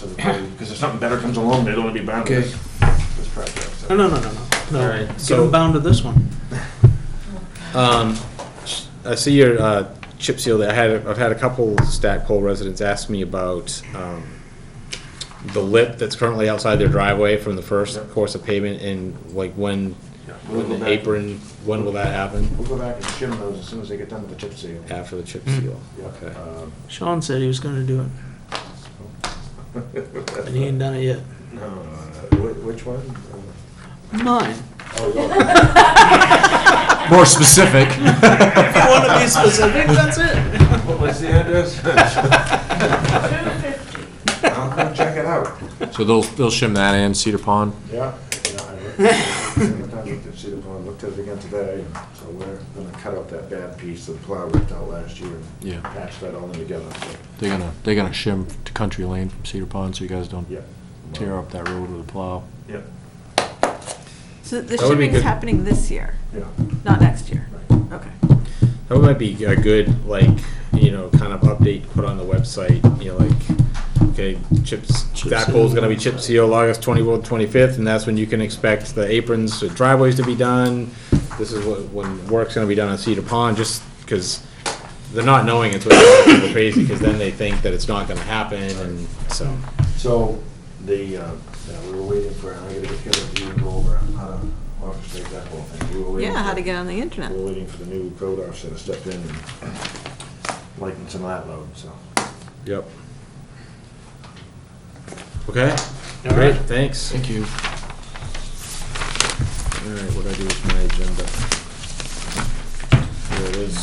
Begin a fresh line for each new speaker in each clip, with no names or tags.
Because if something better comes along, they don't want to be bound to
Okay.
this, this project. so.
No, no, no, no,
All
no.
right,
No, get
so-
them bound to this one.
Um, sh- I see your uh, chip seal there. I had, I've had a couple Stackpole residents ask me about um, the lip that's currently outside their driveway from the first
Yep.
course of pavement and like when,
Yeah, We'll
when
go
the
back,
apron, when will that happen?
we'll go back and shim those as soon as they get done with the chip seal.
After the
Hmm.
chip
Mm.
seal?
Yeah,
Okay.
um,
Sean said he was gonna do it, and he ain't done it yet.
No, no, no, Uh, whi- which one? Uh,
Mine.
Oh, yeah.
More specific.
If you wanna be specific, that's it.
What was the address? I'll come check it out.
So they'll, they'll shim that and Cedar Pond?
Yeah. yeah, I looked- I looked at Cedar Pond, looked at it again today, and so we're gonna cut out that bad piece that the plow ripped out last year and
Yeah,
patch that all in together, so,
they're gonna, they're gonna shim to Country Lane from Cedar Pond so you guys don't
yeah.
tear up that road with a plow.
Yeah,
So the
That would be
shipping's
good.
happening this year,
yeah,
not next year?
right.
Okay.
That might be a good, like, you know, kind of update to put on the website, you know, like, okay, chips,
Chip
that goal's
seal.
gonna be chip seal August twenty-fourth, twenty-fifth, and that's when you can expect the aprons, the driveways to be done. This is what, when work's gonna be done on Cedar Pond, just because they're not knowing it's what drives people crazy, because then they think that it's not gonna happen, and so.
So, the, uh, yeah, we were waiting for, I gotta get together with you and go over how to orchestrate that whole thing. We were waiting
Yeah, how
for-
to get on the internet.
We're waiting for the new code officer to step in and lighten some of that load, so.
Yep. Okay,
All
great,
right.
thanks.
Thank you.
All right, what do I do with my agenda? There it is.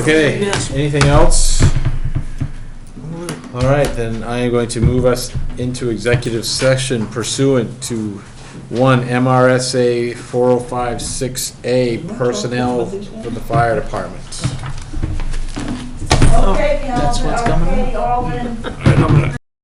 Okay,
Yes.
anything else? All right, then I am going to move us into executive session pursuant to one MRSA 4056A personnel for the fire department.
Okay,
that's what's
Calvin,
coming
okay, Alden.